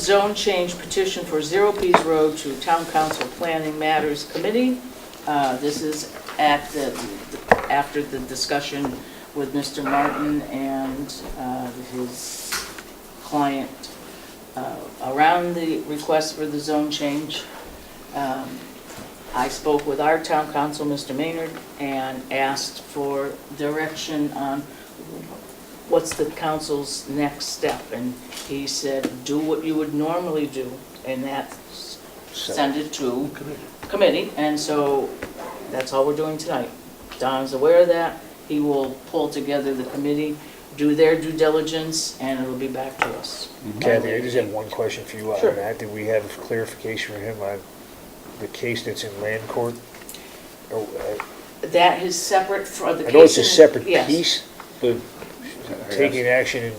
zone change petition for Zero Pease Road to Town Council Planning Matters Committee. Uh, This is at the, after the discussion with Mr. Martin and uh, his client uh, around the request for the zone change. Um, I spoke with our town council, Mr. Maynard, and asked for direction on what's the council's next step? And he said, do what you would normally do, and that's send it to committee. And so that's all we're doing tonight. Don's aware of that. He will pull together the committee, do their due diligence, and it'll be back to us. Mm-hmm. Kathy, I just had one question for you on Sure. that. Did we have clarification for him on the case that's in land court? Oh, uh, That is separate for the case. I know it's a separate Yes. piece, but taking action in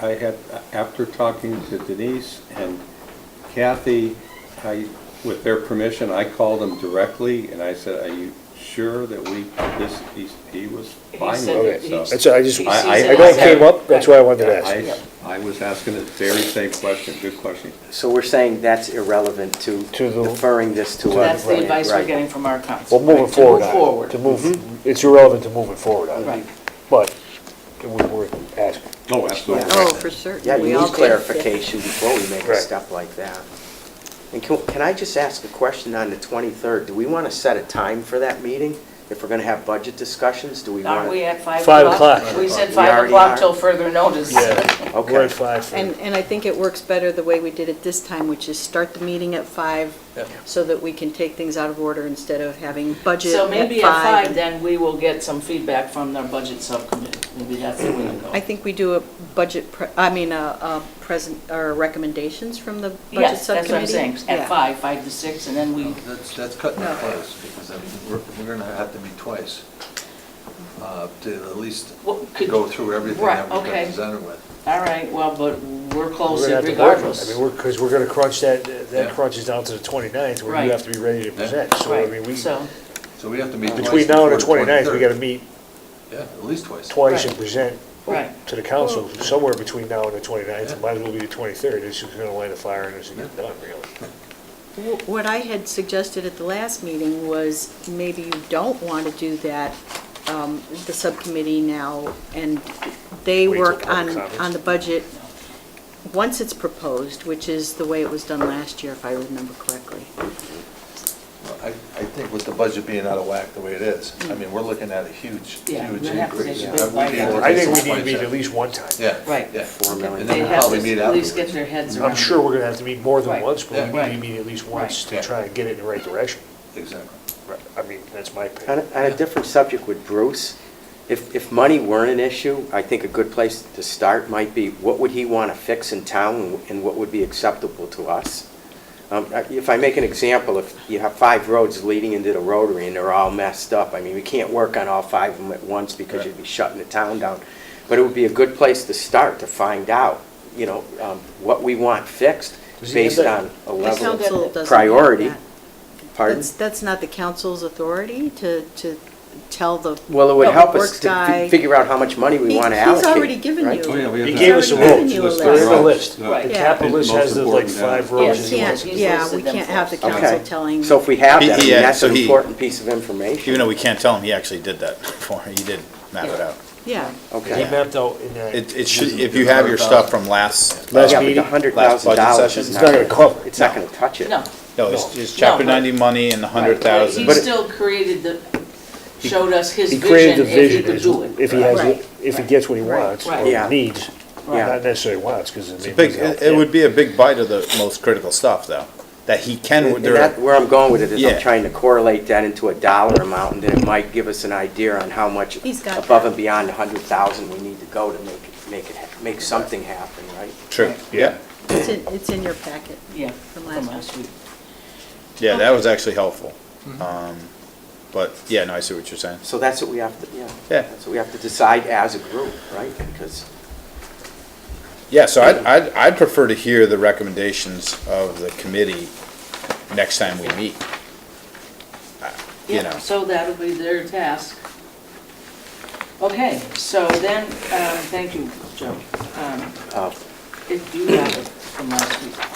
I I had, after talking to Denise and Kathy, I, with their permission, I called them directly and I said, are you sure that we, this, he- he was He fine said with that it, he- Oh, so. That's all, I just, He sees I it I know as it came a- up, that's why I wanted to ask. I, I was asking the very same question, good question. So we're saying that's irrelevant to To the- deferring this to us. That's the Right, advice we're right. getting from our council. Well, moving right, to forward move Mm-hmm. on it, to move, it's irrelevant to moving forward on Right. it, but it was worth asking. Oh, absolutely. Oh, for certain. Yeah, We you all need did. clarification before we make a Right. step like that. And can, can I just ask a question on the 23rd? Do we want to set a time for that meeting? If we're going to have budget discussions, do we want to? Aren't we at five Five o'clock? o'clock. We said We five already o'clock are. E till further notice. Okay. We're at five. for- And, and I think it works better the way we did it this time, which is start the meeting at five Yeah. so that we can take things out of order instead of having budget So maybe at at five, five. then we will get some feedback from their budget subcommittee. Maybe that's the way to go. I think we do a budget, pre- I mean, a, a present, or recommendations from the budget Yes, that's subcommittee. what I'm saying, Yeah. at five, five to six, and then we, That's, that's cutting it No. close, because I mean, we're, we're gonna have to meet twice, uh, to at least Well, could- go through everything Right, that we've okay. been presented with. all right, well, but we're We're close gonna have to work on it. I regardless. mean, we're, because we're gonna crunch that, that Yeah. crunches down to the 29th, where Right. you have to be ready to present, so I mean, Right, we, so, So we have to meet twice between now and the before 29th, we 23rd. gotta meet Yeah, at least twice. twice and Right. present right, to the council, somewhere between now and the 29th, Yeah. it might as well be the 23rd, it's just gonna light a fire and it's gonna get done, really. Wh- What I had suggested at the last meeting was maybe you don't want to do that, um, the subcommittee now, and they Wait till work public on, comments. on the budget once it's proposed, which is the way it was done last year, if I remember correctly. Well, I, I think with the budget being out of whack the way it is, I mean, we're looking at a huge, Yeah, huge we'd have to increase. take a Yeah, big we need bite out to of I take think we some need to meet points at out. least one time. Yeah. Right. Yeah. Four million. And they then we'll have probably to meet at least get afterwards. their heads around. I'm sure we're gonna have to meet more than Right. once, but we Right. need to meet at least once to Right. try and get it in the right direction. Exactly. I mean, that's my On opinion. a, on a different subject with Bruce, if, if money weren't an issue, I think a good place to start might be, what would he want to fix in town and what would be acceptable to us? Um, If I make an example, if you have five roads leading into the rotary and they're all messed up, I mean, we can't work on all five of them at once because you'd be shutting the town down. But it would be a good place to start to find out, you know, um, what we want fixed Does he have based that- on a The level of council doesn't. have priority. that. Pardon? That's, that's not the council's authority to, to tell the. Well, it would public help us works to guy. fi- figure out how much money we He- want to he's allocate. already given right? you- Oh, yeah, we have He that. gave us a He's already list, given you a There is a list. list. Right. The Yeah. capitalist has the like Most five important, We rows. Yeah, and he can't, has- yeah, we can't have the He's listed them council first. telling. So if we have He- that, I mean, yeah, that's so an he- important piece of information. Even though we can't tell him, he actually did that for, he did map it out. Yeah. He Okay. mapped out in that. It, it should, if you have your stuff from last, Last Yeah, uh, but meeting, the hundred last thousand budget dollars session, is It's not gonna cover it. It's not going to touch it. No. no, it's it's chapter No, but- ninety money and the hundred But thousand. he still created the, showed us his He vision created the if he vision, could is- do it. if he has, Right. if he gets what he Right. wants, Right. Yeah. or needs, Right. not necessarily wants, because it It's a may big, be it helpful. it would be a big bite of the most critical stuff, though, that he can, And and that, where I'm going with it is Yeah. I'm trying to correlate that into a dollar amount, and then it might give us an idea on how much He's got above that. and beyond the hundred thousand we need to go to make, it make it, ha- make something happen, right? true, yeah. It's in, it's in your packet. Yeah, From from last last week. Yeah, that was actually helpful. Mm-hmm. Um, But, yeah, no, I see what you're saying. So that's what we have to, yeah. Yeah. That's what we have to decide as a group, right? Because Yeah, so I'd, I'd, I'd prefer to hear the recommendations of the committee next time we meet. Uh, You Yeah, know, so that'll be their task. Okay, so then, um, thank you, Joe. Um, uh, é If you have it from last week.